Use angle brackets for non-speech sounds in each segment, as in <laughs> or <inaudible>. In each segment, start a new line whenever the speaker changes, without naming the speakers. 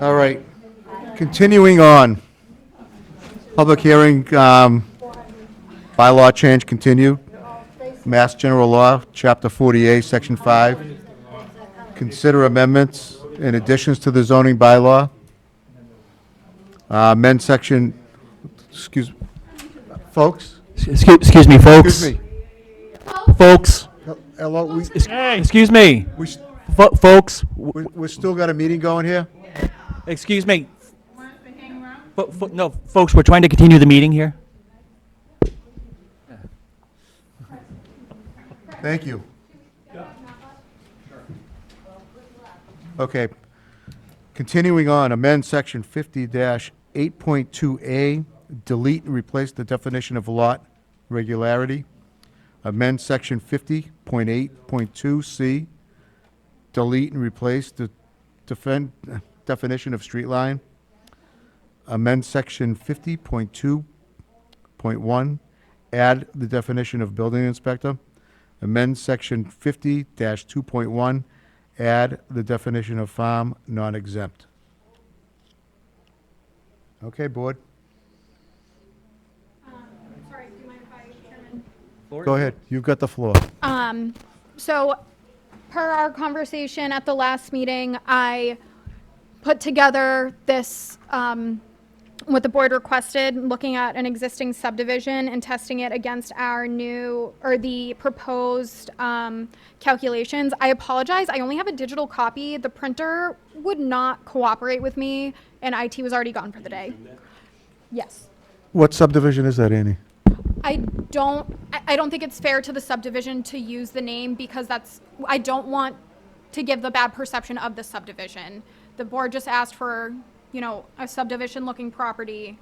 All right. Continuing on. Public hearing, um, bylaw change continued. Mass General Law, Chapter 48, Section 5. Consider amendments and additions to the zoning bylaw. Uh, amend section, excuse, folks?
Excuse, excuse me, folks.
Excuse me.
Folks.
Hello, we,
Ex- Excuse me,
we s-
Fo- folks. W-
we, we still got a meeting going here?
Excuse me. Fo- fo- no, folks, we're trying to continue the meeting here.
Thank you. Okay. Continuing on, amend section fifty eight point two A, delete and replace the definition of lot regularity. Amend section fifty point eight point two C, delete and replace the defend, definition of street line. Amend section fifty point two point one, add the definition of building inspector amend section fifty two point one, add the definition of farm non-exempt. Okay, board,
Sorry, do you mind if I, Chairman?
go ahead, you've got the floor.
Um, so, per our conversation at the last meeting, I put together this, um, what the board requested, looking at an existing subdivision and testing it against our new, or the proposed, um, calculations. I apologize, I only have a digital copy. The printer would not cooperate with me, and IT was already gone for the day. Yes.
What subdivision is that, Annie?
I don't, I- I don't think it's fair to the subdivision to use the name because that's, I don't want to give the bad perception of the subdivision. The board just asked for, you know, a subdivision-looking property,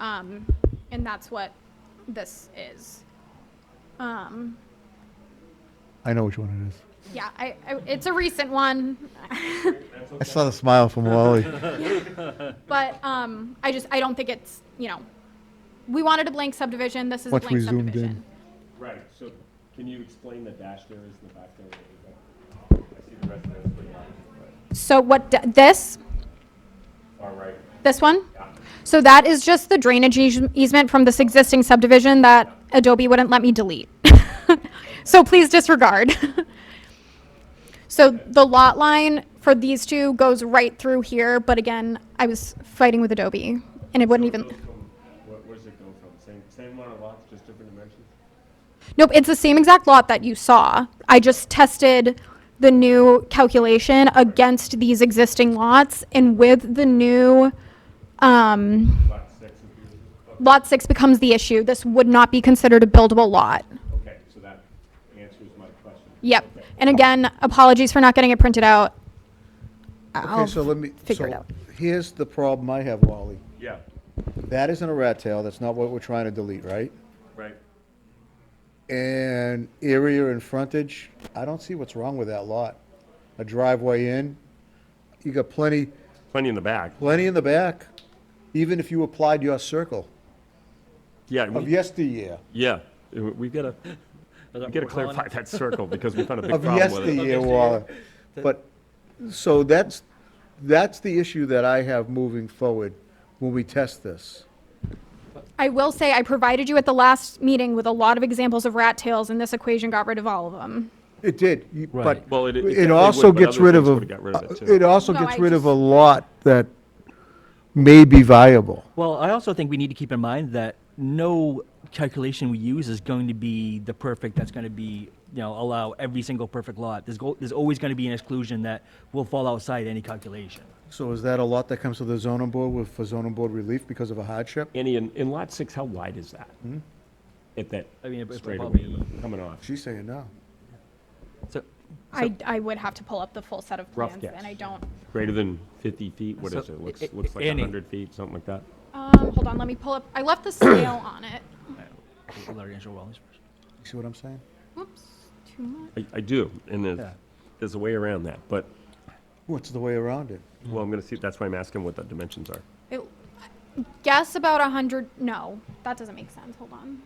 um, and that's what this is. Um,
I know which one it
yeah, I, I, it's a recent one,
is. I saw the smile from <laughs> Wally.
but, um, I just, I don't think it's, you know, we wanted a blank subdivision, this is a
Once we
blank
zoomed in.
subdivision.
Right, so can you explain the dash there is in the back there? I see the residence, but
So what, d- this?
far right.
This one? So that is just the drainage eas- easement from this existing subdivision that Adobe wouldn't let me delete. <laughs> So please disregard. <laughs> So the lot line for these two goes right through here, but again, I was fighting with Adobe and it wouldn't
So it
even,
goes from- What, where does it go from? Same, same amount of lots, just different dimensions?
nope, it's the same exact lot that you saw. I just tested the new calculation against these existing lots and with the new, um,
Lot six is,
Lot 6 becomes the issue, this would not be considered a buildable lot.
okay, so that answers my question.
Yep. And again, apologies for not getting it printed out. I'll
Okay, so let me,
figure it
so
out.
here's the problem I have, Wally.
Yeah,
That isn't a rat tail, that's not what we're trying to delete, right?
right.
And area and frontage, I don't see what's wrong with that lot. A driveway in, you got plenty,
Plenty in the back.
Plenty in the back, even if you applied your circle
Yeah,
of
we-
yesteryear.
yeah, we- we gotta, we gotta clarify that circle because we found a big
Of
problem with it.
yesteryear, Waller. But, so that's, that's the issue that I have moving forward when we test this.
I will say, I provided you at the last meeting with a lot of examples of rat tails, and this equation got rid of all of them.
It did, you- but
Well, it- it
it
definitely
also
would, but
gets
other
rid of,
things
a-
would've got rid of it, too.
it also
No,
gets
I
rid of
just-
a lot that may be viable.
Well, I also think we need to keep in mind that no calculation we use is going to be the perfect, that's going to be, you know, allow every single perfect lot. There's, go- there's always going to be an exclusion that will fall outside any calculation.
So is that a lot that comes to the zoning board with, for zoning board relief because of a hardship?
Annie, in, in lot six, how wide is that? At that
I mean, it- it's
straightaway
probably-
coming off?
She's saying no.
So,
I, I would have to pull up the full set of
Rough
plans,
guess.
and I don't.
Greater than 50 feet, what
So,
is it? Looks,
i- i-
looks like
Annie.
100 feet, something like that.
Um, hold on, let me pull up, I left the scale on it.
Larry Angelo Wallace first.
You see what I'm saying?
Whoops, too much.
I, I do, and there's,
Yeah.
there's a way around that, but,
What's the way around it?
Mm.
well, I'm gonna see, that's why I'm asking what the dimensions are.
It- Guess about a 100, no, that doesn't make sense, hold on.